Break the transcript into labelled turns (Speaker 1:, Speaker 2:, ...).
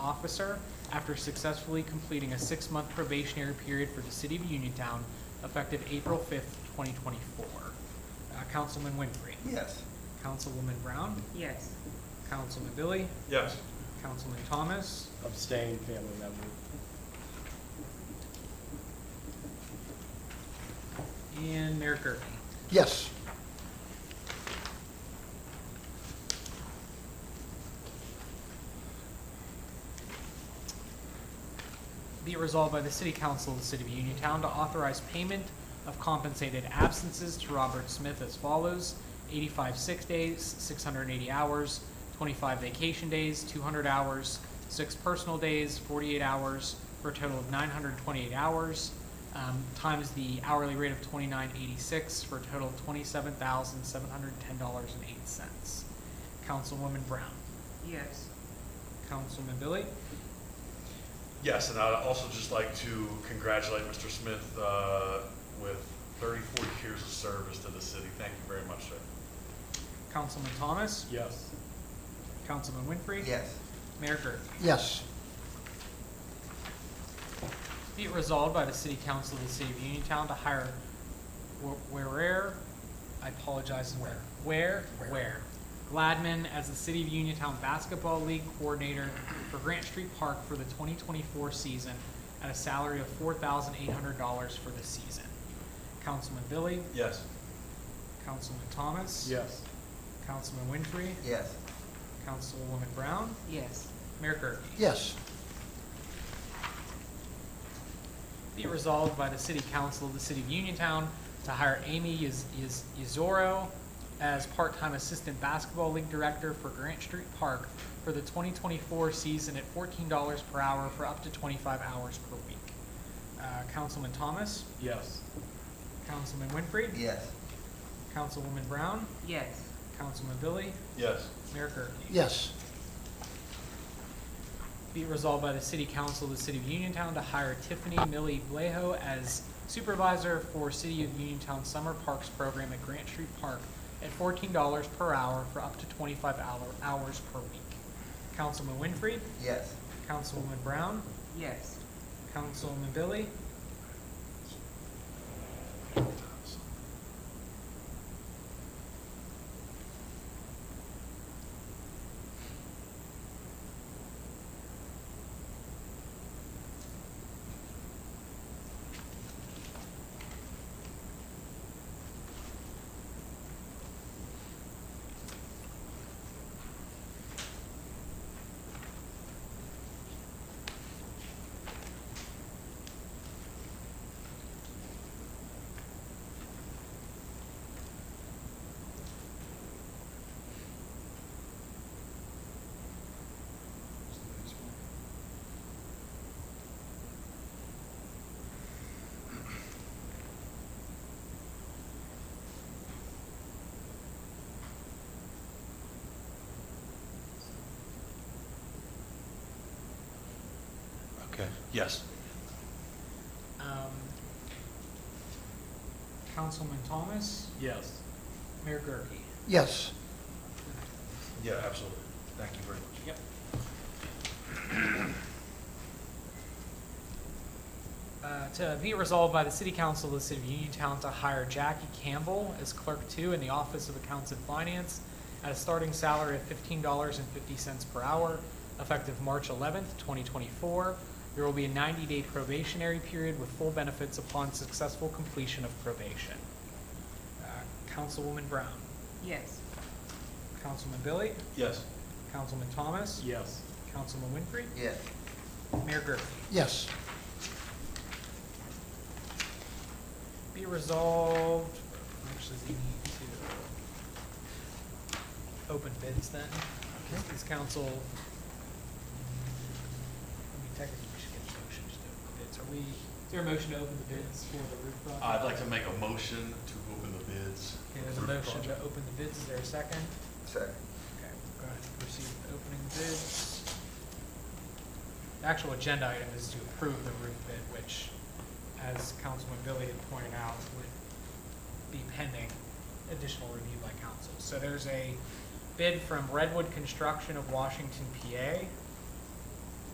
Speaker 1: officer after successfully completing a six-month probationary period for the city of Uniontown effective April fifth, twenty twenty-four. Uh, Councilman Winfrey,
Speaker 2: Yes.
Speaker 1: Councilwoman Brown,
Speaker 3: Yes,
Speaker 1: Councilman Billy,
Speaker 4: Yes.
Speaker 1: Councilman Thomas,
Speaker 5: Abstain, family member.
Speaker 1: and Mayor Gurke.
Speaker 2: Yes.
Speaker 1: Be it resolved by the City Council of the City of Uniontown to authorize payment of compensated absences to Robert Smith as follows: eighty-five sick days, six hundred and eighty hours, twenty-five vacation days, two hundred hours, six personal days, forty-eight hours, for a total of nine hundred and twenty-eight hours, um, times the hourly rate of twenty-nine eighty-six, for a total of twenty-seven thousand, seven hundred and ten dollars and eight cents. Councilwoman Brown,
Speaker 3: yes,
Speaker 1: Councilman Billy,
Speaker 4: Yes, and I'd also just like to congratulate Mr. Smith uh, with 34 years of service to the city. Thank you very much, sir.
Speaker 1: Councilman Thomas,
Speaker 5: Yes.
Speaker 1: Councilman Winfrey.
Speaker 2: Yes.
Speaker 1: Mayor Gurke.
Speaker 2: Yes.
Speaker 1: Be it resolved by the City Council of the City of Uniontown to hire Wh- Whereer, I apologize, Where, Where, Where, Gladman as the City of Uniontown Basketball League Coordinator for Grant Street Park for the 2024 season at a salary of $4,800 for the season. Councilman Billy,
Speaker 4: Yes.
Speaker 1: Councilman Thomas.
Speaker 5: Yes.
Speaker 1: Councilman Winfrey,
Speaker 2: Yes.
Speaker 1: Councilwoman Brown,
Speaker 3: yes,
Speaker 1: Mayor Gurke.
Speaker 2: Yes.
Speaker 1: Be it resolved by the City Council of the City of Uniontown to hire Amy Yaz- Yaz- Yazoro as part-time Assistant Basketball League Director for Grant Street Park for the 2024 season at $14 per hour for up to 25 hours per week. Uh, Councilman Thomas,
Speaker 5: Yes.
Speaker 1: Councilman Winfrey,
Speaker 2: Yes.
Speaker 1: Councilwoman Brown,
Speaker 3: yes,
Speaker 1: Councilman Billy,
Speaker 4: Yes.
Speaker 1: Mayor Gurke.
Speaker 2: Yes.
Speaker 1: Be it resolved by the City Council of the City of Uniontown to hire Tiffany Millie Blejo as supervisor for City of Uniontown Summer Parks Program at Grant Street Park at fourteen dollars per hour for up to twenty-five hour, hours per week. Councilman Winfrey,
Speaker 2: Yes.
Speaker 1: Councilwoman Brown,
Speaker 3: yes,
Speaker 1: Councilman Billy,
Speaker 4: Okay. Yes.
Speaker 1: um, Councilman Thomas,
Speaker 5: Yes.
Speaker 1: Mayor Gurke.
Speaker 2: Yes.
Speaker 4: Yeah, absolutely. Thank you very much.
Speaker 1: Yep. Uh, To be resolved by the City Council of the City of Uniontown to hire Jackie Campbell as Clerk Two in the Office of Accounts and Finance at a starting salary of fifteen dollars and fifty cents per hour, effective March eleventh, twenty twenty-four. There will be a ninety-day probationary period with full benefits upon successful completion of probation. Uh, Councilwoman Brown,
Speaker 3: yes,
Speaker 1: Councilman Billy,
Speaker 4: Yes.
Speaker 1: Councilman Thomas,
Speaker 5: Yes.
Speaker 1: Councilman Winfrey,
Speaker 2: Yes.
Speaker 1: Mayor Gerke.
Speaker 2: Yes.
Speaker 1: Be resolved, actually, we need to open bids then. This is council, I mean, technically, we should get a motion just to open bids. Are we, is there a motion to open the bids for the roof project?
Speaker 4: I'd like to make a motion to open the bids.
Speaker 1: Okay, there's a motion to open the bids. Is there a second?
Speaker 2: Second.
Speaker 1: Okay, go ahead and proceed with opening the bids. The actual agenda item is to approve the roof bid, which, as Councilman Billy had pointed out, would be pending additional review by council. So there's a bid from Redwood Construction of Washington, PA,